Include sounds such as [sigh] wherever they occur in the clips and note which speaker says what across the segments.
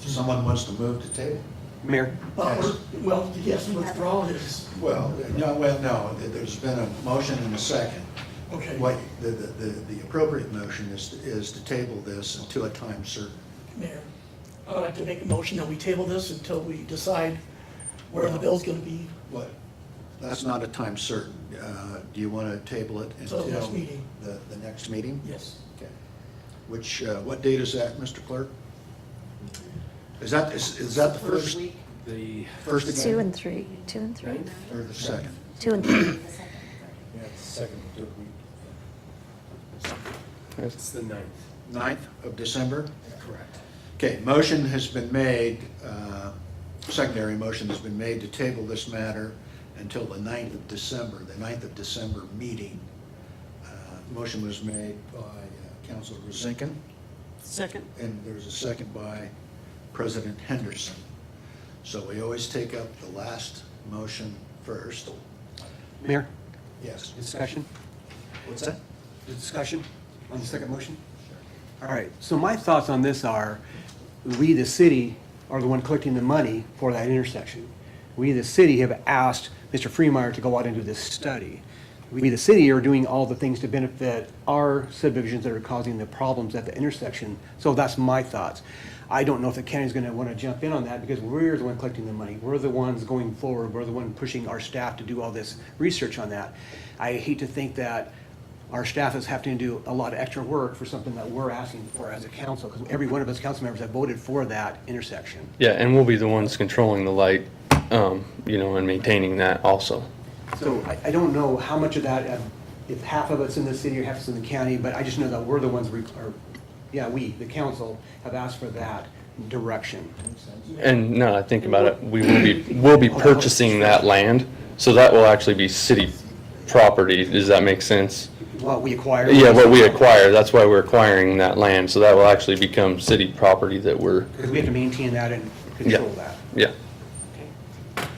Speaker 1: someone wants to move to table.
Speaker 2: Mayor,
Speaker 3: Well, we're- Well, yes, withdrawal is,
Speaker 1: Well, no, well, no, there- there's been a motion and a second.
Speaker 3: okay.
Speaker 1: What, the, the, the the appropriate motion is, is to table this until a time certain.
Speaker 3: Mayor, I'd like to make a motion that we table this until we decide where the bill's gonna be
Speaker 1: What? That's not a time certain. Uh, Do you want to table it
Speaker 3: Until
Speaker 1: until?
Speaker 3: the next meeting.
Speaker 1: The, the next meeting?
Speaker 3: Yes.
Speaker 1: Okay. Which, uh, what date is that, Mr. Clerk? Is that, is, is that the first,
Speaker 4: The,
Speaker 1: first
Speaker 5: Two
Speaker 1: again?
Speaker 5: and three, two and three,
Speaker 1: Or the second?
Speaker 5: two and three.
Speaker 4: yeah, it's the second, third week. It's the ninth.
Speaker 1: 9th of December? Correct. Okay, motion has been made, uh, secondary motion has been made to table this matter until the 9th of December, the 9th of December meeting. Uh, Motion was made by uh, Counselor Rosinkin,
Speaker 6: Second.
Speaker 1: and there's a second by President Henderson. So we always take up the last motion first.
Speaker 2: Mayor,
Speaker 1: Yes.
Speaker 2: discussion,
Speaker 1: What's that?
Speaker 2: discussion on the second motion? All right, so my thoughts on this are, we, the city, are the one collecting the money for that intersection. We, the city, have asked Mr. Freemeyer to go out and do this study. We, the city, are doing all the things to benefit our subdivisions that are causing the problems at the intersection. So that's my thoughts. I don't know if the county's gonna wanna jump in on that, because we're the one collecting the money. We're the ones going forward, we're the one pushing our staff to do all this research on that. I hate to think that our staff is having to do a lot of extra work for something that we're asking for as a council, because every one of us council members have voted for that intersection.
Speaker 7: Yeah, and we'll be the ones controlling the light, um, you know, and maintaining that also.
Speaker 2: So I, I don't know how much of that, uh, if half of it's in the city or half is in the county, but I just know that we're the ones, re- or, yeah, we, the council, have asked for that direction.
Speaker 7: And now that I think about it, we will be, we'll be purchasing that land, so that will actually be city property. Does that make sense?
Speaker 2: What we acquire.
Speaker 7: Yeah, what we acquire, that's why we're acquiring that land, so that will actually become city property that we're,
Speaker 2: Because we have to maintain that and control that.
Speaker 7: yeah.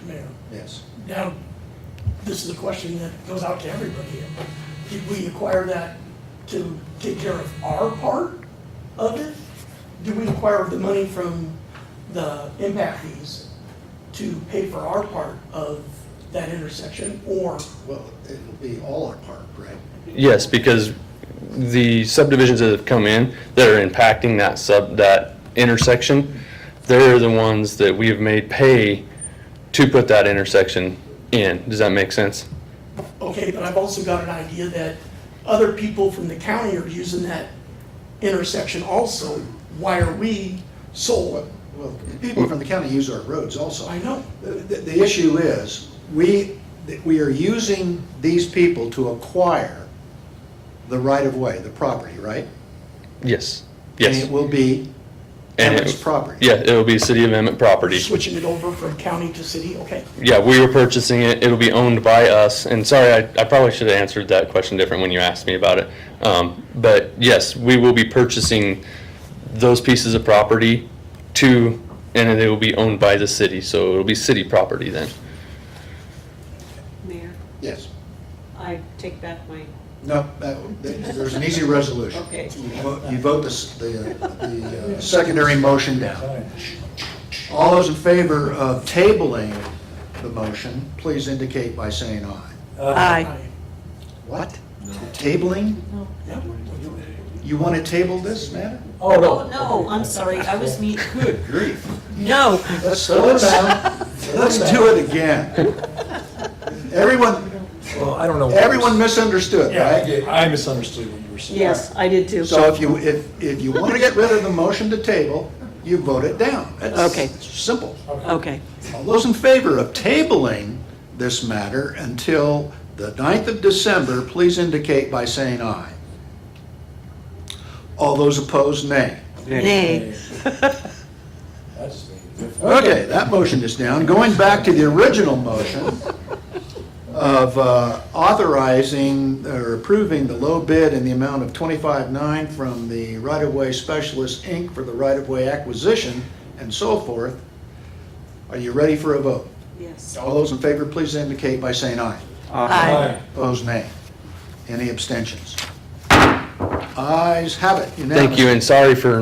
Speaker 3: Mayor.
Speaker 1: Yes.
Speaker 3: Now, this is a question that goes out to everybody. Did we acquire that to take care of our part of it? Do we acquire the money from the impact fees to pay for our part of that intersection? Or,
Speaker 1: Well, it'll be all our part, right?
Speaker 7: Yes, because the subdivisions that have come in that are impacting that sub, that intersection, they're the ones that we have made pay to put that intersection in. Does that make sense?
Speaker 3: okay, but I've also got an idea that other people from the county are using that intersection also. Why are we sole?
Speaker 1: Well, people from the county use our roads also.
Speaker 3: I know.
Speaker 1: The, the issue is, we, that we are using these people to acquire the right-of-way, the property, right?
Speaker 7: Yes,
Speaker 1: And it
Speaker 7: yes.
Speaker 1: will be
Speaker 7: And it-
Speaker 1: Emmett's property.
Speaker 7: Yeah, it will be city of Emmett property.
Speaker 3: Switching it over from county to city, okay.
Speaker 7: Yeah, we were purchasing it, it'll be owned by us, and sorry, I, I probably should have answered that question different when you asked me about it. Um, but yes, we will be purchasing those pieces of property to, and they will be owned by the city, so it'll be city property then.
Speaker 6: Mayor,
Speaker 1: Yes.
Speaker 6: I take back my,
Speaker 1: No, that- that- there's an easy resolution.
Speaker 6: Okay.
Speaker 1: You vote- You vote the, s- the, uh, the uh, secondary motion down. All those in favor of tabling the motion, please indicate by saying aye.
Speaker 6: Aye.
Speaker 1: What? Tabling?
Speaker 3: Yep.
Speaker 1: You want to table this matter?
Speaker 6: Oh, no. No, I'm sorry, I was [laughs] me,
Speaker 1: Good grief.
Speaker 6: no,
Speaker 1: Let's slow it down. Let's do it again. Everyone,
Speaker 4: Well, I don't know.
Speaker 1: everyone misunderstood, right?
Speaker 4: I misunderstood what you were saying.
Speaker 6: yes, I did too.
Speaker 1: So if you, if, if you want to get rid of the motion to table, you vote it down. That's-
Speaker 6: Okay.
Speaker 1: it's Simple.
Speaker 6: Okay,
Speaker 1: All those in favor of tabling this matter until the 9th of December, please indicate by saying aye. All those opposed, nay. [laughs]
Speaker 6: nay,
Speaker 4: That's-
Speaker 1: Okay, that motion is down. Going back to the original motion of uh, authorizing or approving the low bid in the amount of 25.9 from the Right of Way Specialist, Inc. for the right of way acquisition and so forth. Are you ready for a vote?
Speaker 6: yes.
Speaker 1: All those in favor, please indicate by saying aye.
Speaker 6: Aye.
Speaker 1: Opposed, nay. Any abstentions? Ayes have it unanimously.
Speaker 7: Thank you, and sorry for